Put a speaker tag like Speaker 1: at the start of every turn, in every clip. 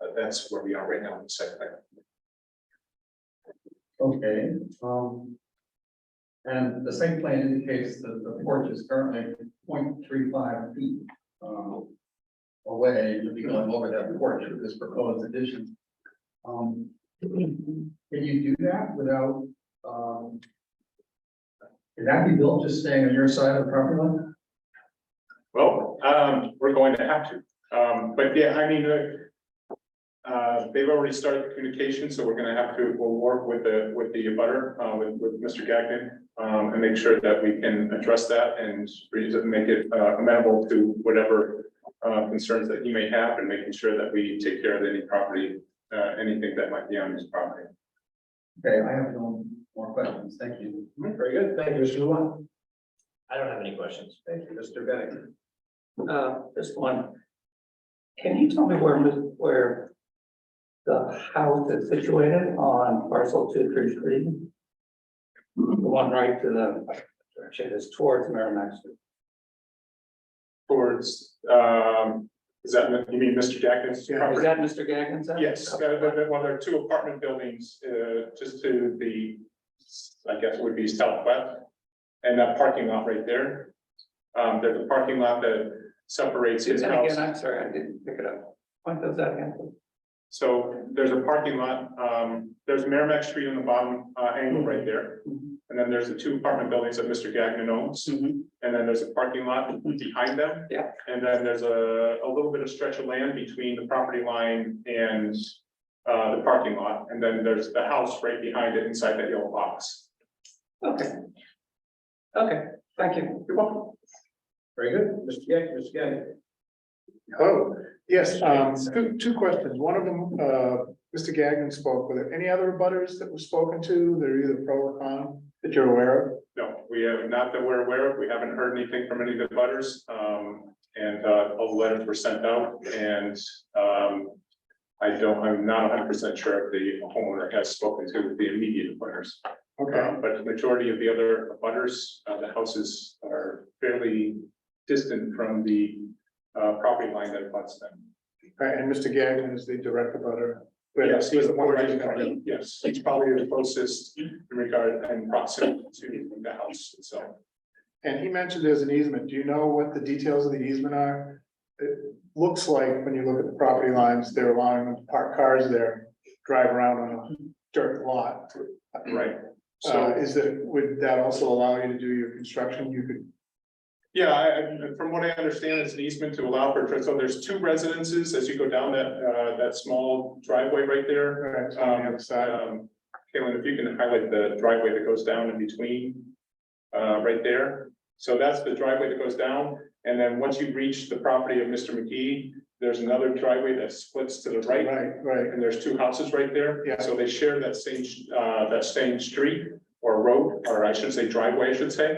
Speaker 1: Uh, that's where we are right now in the site plan.
Speaker 2: Okay, um. And the site plan indicates that the porch is currently 0.35 feet, um. Away, to be going over that porch with this proposed addition. Um, can you do that without, um. Can that be built just staying on your side of the property line?
Speaker 1: Well, um, we're going to have to, um, but yeah, I mean, uh. Uh, they've already started communication, so we're gonna have to, we'll work with the, with the butter, uh, with, with Mr. Gagnon. Um, and make sure that we can address that and re- make it uh, amenable to whatever. Uh, concerns that he may have and making sure that we take care of any property, uh, anything that might be on his property.
Speaker 2: Okay, I have no more questions, thank you.
Speaker 3: Very good. Thank you, Mr. Luan. I don't have any questions. Thank you, Mr. Bennett. Uh, this one. Can you tell me where, Ms- where the house is situated on parcel two, three, three? The one right to the, direction is towards Merrimack Street.
Speaker 1: Towards, um, is that, you mean Mr. Gagnon's property?
Speaker 3: Is that Mr. Gagnon's? house?
Speaker 1: Yes, uh, but- but- well, there are two apartment buildings, uh, just to the, I guess would be southwest. And that parking lot right there. Um, there's a parking lot that separates his
Speaker 3: And
Speaker 1: house.
Speaker 3: again, I'm sorry, I didn't pick it up. What does that happen?
Speaker 1: So there's a parking lot, um, there's Merrimack Street on the bottom, uh,
Speaker 3: Mm-hmm.
Speaker 1: angle right there. And then there's the two apartment buildings that Mr. Gagnon owns.
Speaker 3: Mm-hmm.
Speaker 1: And then there's a parking lot behind them.
Speaker 3: Yeah.
Speaker 1: And then there's a, a little bit of stretch of land between the property line and uh, the parking lot. And then there's the house right behind it inside that yellow box.
Speaker 3: Okay. Okay, thank you. You're welcome.
Speaker 2: Very good, Mr. Gag, Mr. Gag.
Speaker 4: Hello, yes, um, two, two questions, one of them, uh, Mr. Gagnon spoke, were there any other butters that were spoken to, that are either pro or con, that you're aware of?
Speaker 1: No, we have, not that we're aware of, we haven't heard anything from any of the butters, um, and, uh, all the letters were sent out, and, um. I don't, I'm not hundred percent sure if the homeowner has spoken to the immediate butters,
Speaker 4: Okay,
Speaker 1: um, but the majority of the other butters, uh, the houses are fairly distant from the. Uh, property line that abuts them.
Speaker 4: Right, and Mr. Gagnon is the direct butter.
Speaker 1: Yes, he was the one right in front of them. Yes, he's probably the closest in regard and proximity to the house itself.
Speaker 4: And he mentioned there's an easement, do you know what the details of the easement are? It looks like, when you look at the property lines, they're allowing them to park cars there, drive around on a dirt lot.
Speaker 1: Right,
Speaker 4: So
Speaker 1: so.
Speaker 4: is that, would that also allow you to do your construction, you could
Speaker 1: Yeah, I, I- from what I understand, it's an easement to allow for, so there's two residences as you go down that, uh, that small driveway right there.
Speaker 4: Right, so on the other side,
Speaker 1: Um, Caitlin, if you can highlight the driveway that goes down in between, uh, right there. So that's the driveway that goes down, and then once you reach the property of Mr. McGee, there's another driveway that splits to the right.
Speaker 4: uh, right, right,
Speaker 1: And there's two houses right there.
Speaker 4: Yeah.
Speaker 1: So they share that same, uh, that same street or road, or I should say driveway, I should say.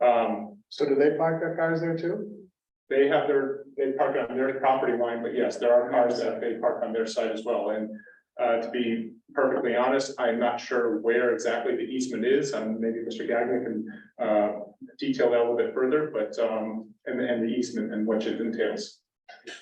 Speaker 1: Um,
Speaker 4: so do they park their cars there too?
Speaker 1: they have their, they park on their property line, but yes, there are cars that they park on their side as well, and. Uh, to be perfectly honest, I'm not sure where exactly the easement is, and maybe Mr. Gagnon can, uh, detail that a little bit further, but, um, and, and the easement and what it entails.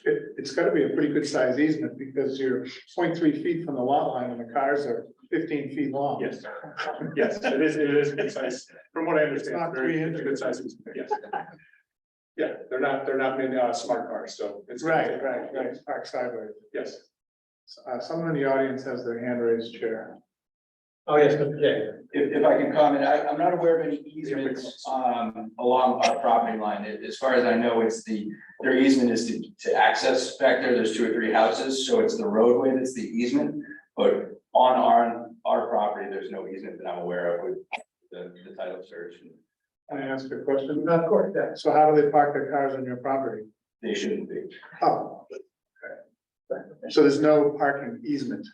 Speaker 4: It, it's gotta be a pretty good size easement because you're 0.3 feet from the lot line and the cars are fifteen feet long.
Speaker 1: Yes, yes, it is, it is good size, from what I understand,
Speaker 4: Not
Speaker 1: very
Speaker 4: 300.
Speaker 1: good size, easement, yes. Yeah, they're not, they're not, uh, smart cars, so. it's
Speaker 4: Right, right, right, park sideways.
Speaker 1: Yes,
Speaker 4: Uh, someone in the audience has their hand raised, Chair.
Speaker 2: Oh, yes, Mr. Gag.
Speaker 5: If, if I can comment, I, I'm not aware of any easements, um, along our property line. A- As far as I know, it's the, their easement is to, to access back there. There's two or three houses, so it's the roadway that's the easement. But on our, our property, there's no easement that I'm aware of with the, the title search.
Speaker 4: Can I ask you a question?
Speaker 2: Of course, yes.
Speaker 4: So how do they park their cars on your property?
Speaker 5: They shouldn't be.
Speaker 4: Oh. okay. So there's no parking easement.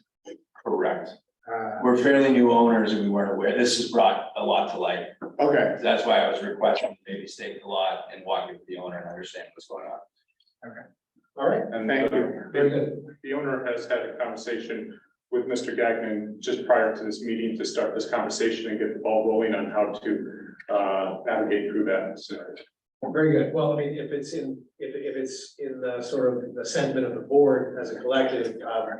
Speaker 5: Correct.
Speaker 4: Uh,
Speaker 5: We're fairly new owners and we weren't aware. This has brought a lot to light.
Speaker 4: okay,
Speaker 5: That's why I was requesting maybe stake the lot and walk with the owner and understand what's going on.
Speaker 2: All right,
Speaker 1: and.
Speaker 4: thank
Speaker 1: uh,
Speaker 4: you.
Speaker 2: very good.
Speaker 1: the owner has had a conversation with Mr. Gagnon just prior to this meeting to start this conversation and get the ball rolling on how to uh, navigate through that scenario.
Speaker 6: Very good. Well, I mean, if it's in, if, if it's in the sort of the sentiment of the board as a collective, um,